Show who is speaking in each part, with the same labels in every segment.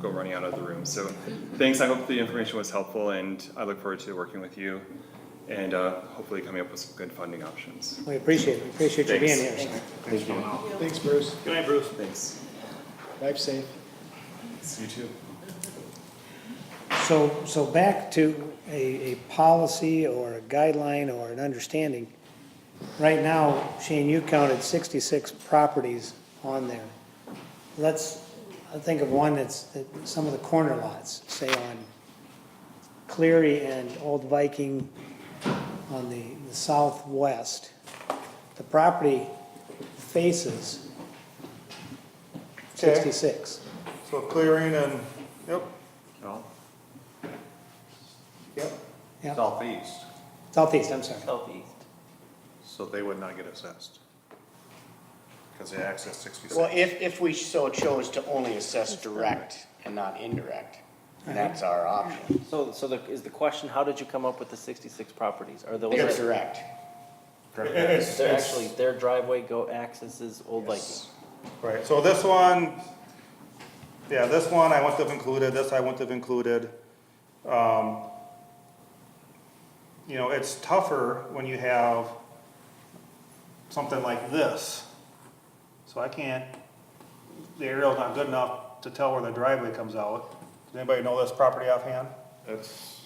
Speaker 1: go running out of the room. So thanks, I hope the information was helpful and I look forward to working with you and uh, hopefully coming up with some good funding options.
Speaker 2: We appreciate it, We appreciate you being here.
Speaker 1: Thanks.
Speaker 2: sir.
Speaker 3: Thanks, Bruce.
Speaker 1: Good night, Bruce. Thanks.
Speaker 3: Life safe.
Speaker 1: You too.
Speaker 2: So, so back to a, a policy or a guideline or an understanding. Right now, Shane, you counted sixty-six properties on there. Let's think of one that's, that some of the corner lots, say on Cleary and Old Viking on the, the southwest. The property faces
Speaker 4: Okay.
Speaker 2: sixty-six.
Speaker 4: So clearing and, yep,
Speaker 5: No,
Speaker 4: yep.
Speaker 2: Yep.
Speaker 5: southeast,
Speaker 2: Southeast, I'm sorry.
Speaker 6: Southeast.
Speaker 5: so they would not get assessed. Because they access sixty-six.
Speaker 7: Well, if, if we so chose to only assess direct and not indirect, that's our option.
Speaker 6: So, so the, is the question, how did you come up with the sixty-six properties? Are those,
Speaker 7: They're direct.
Speaker 6: they're actually, their driveway go accesses Old Viking?
Speaker 4: Right, so this one, yeah, this one I wouldn't have included, this I wouldn't have included. Um, You know, it's tougher when you have something like this. So I can't, the aerial's not good enough to tell where the driveway comes out. Does anybody know this property offhand?
Speaker 5: That's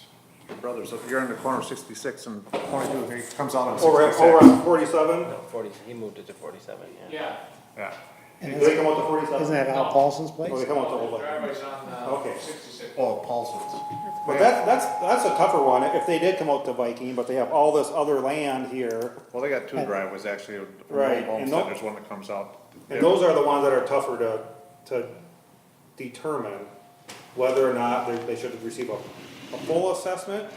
Speaker 5: your brother's, if you're in the corner of sixty-six and twenty-two, he comes out on
Speaker 4: Over,
Speaker 5: sixty-six.
Speaker 4: over on forty-seven?
Speaker 6: No, forty, he moved it to forty-seven, yeah.
Speaker 8: Yeah,
Speaker 5: Yeah,
Speaker 4: Do they come out to forty-seven?
Speaker 2: Isn't that Al Paulson's place?
Speaker 4: Oh, they come out to
Speaker 8: the
Speaker 4: Old Lake.
Speaker 8: driveway's on
Speaker 4: Okay.
Speaker 8: uh, sixty-six.
Speaker 5: oh, Paulson's.
Speaker 4: But that, that's, that's a tougher one, if they did come out to Viking, but they have all this other land here,
Speaker 5: Well, they got two driveways, actually, from the
Speaker 4: Right,
Speaker 5: old
Speaker 4: and
Speaker 5: homestead,
Speaker 4: tho-
Speaker 5: there's one that comes out.
Speaker 4: and those are the ones that are tougher to, to determine whether or not they, they should receive a, a full assessment,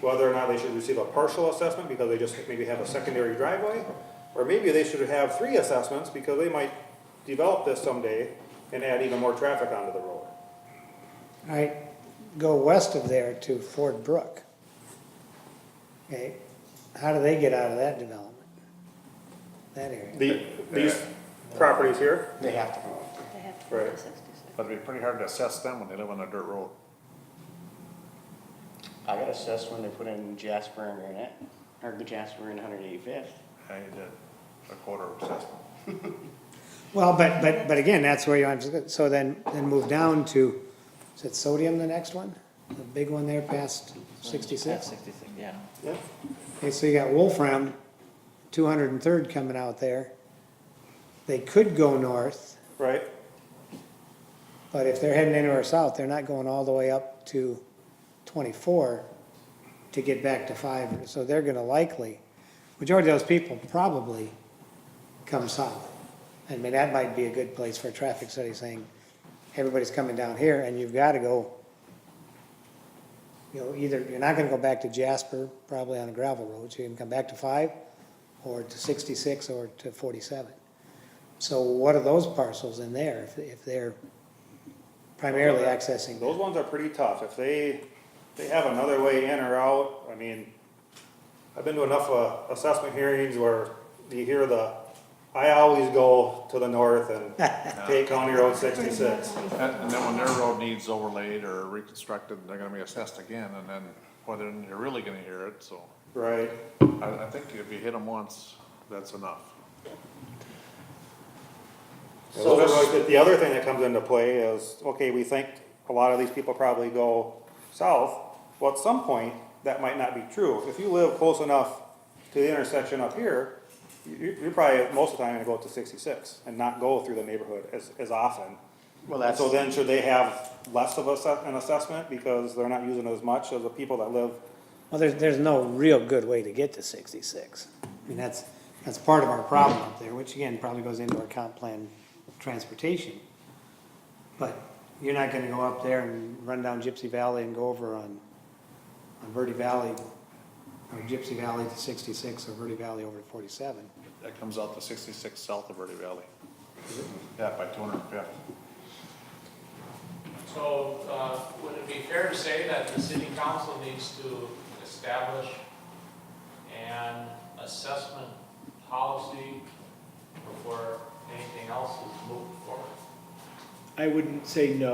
Speaker 4: whether or not they should receive a partial assessment, because they just maybe have a secondary driveway, or maybe they should have three assessments, because they might develop this someday and add even more traffic onto the road.
Speaker 2: All right, go west of there to Ford Brook. Okay, how do they get out of that development? That area?
Speaker 4: The, these properties here,
Speaker 7: They have to move.
Speaker 9: They have to
Speaker 4: Right.
Speaker 9: go to 66.
Speaker 5: But it'd be pretty hard to assess them when they live on a dirt road.
Speaker 7: I got assessed when they put in Jasper and Granite, or Jasper and Hundred Eighty-Fifth.
Speaker 5: I did a quarter of assessment.
Speaker 2: Well, but, but, but again, that's where you, are so then, then move down to, is it Sodium the next one? The big one there past
Speaker 6: At
Speaker 2: sixty-six?
Speaker 6: Sixty-six, yeah.
Speaker 4: yeah,
Speaker 2: Okay, so you got Wolfram, two hundred and third coming out there. They could go north,
Speaker 4: right?
Speaker 2: but if they're heading anywhere south, they're not going all the way up to twenty-four to get back to five, so they're gonna likely, majority of those people probably come south. I mean, that might be a good place for a traffic study saying, everybody's coming down here and you've gotta go. You know, either, you're not gonna go back to Jasper, probably on a gravel road, so you can come back to five or to sixty-six or to forty-seven. So what are those parcels in there if, if they're primarily accessing?
Speaker 4: Those ones are pretty tough, if they, they have another way in or out, I mean, I've been to enough, uh, assessment hearings where you hear the, I always go to the north and take County Road sixty-six.
Speaker 5: And, and then when their road needs overlaid or reconstructed, they're gonna be assessed again, and then, well, then you're really gonna hear it, so.
Speaker 4: Right,
Speaker 5: I, I think if you hit them once, that's enough.
Speaker 4: so those are like the- the other thing that comes into play is, okay, we think a lot of these people probably go south, well, at some point, that might not be true, if you live close enough to the intersection up here, you, you're probably, most of the time, gonna go up to sixty-six and not go through the neighborhood as, as often.
Speaker 7: Well,
Speaker 4: And
Speaker 7: that's,
Speaker 4: so then, should they have less of a, an assessment because they're not using as much as the people that live?
Speaker 2: Well, there's, there's no real good way to get to sixty-six. I mean, that's, that's part of our problem up there, which again, probably goes into our comp plan transportation. But you're not gonna go up there and run down Gypsy Valley and go over on, on Verde Valley, or Gypsy Valley to sixty-six, or Verde Valley over to forty-seven.
Speaker 5: That comes out to sixty-six south of Verde Valley. Yeah, by two hundred and fifth.
Speaker 8: So, uh, would it be fair to say that the city council needs to establish an assessment policy before anything else is moved forward?
Speaker 3: I wouldn't say no.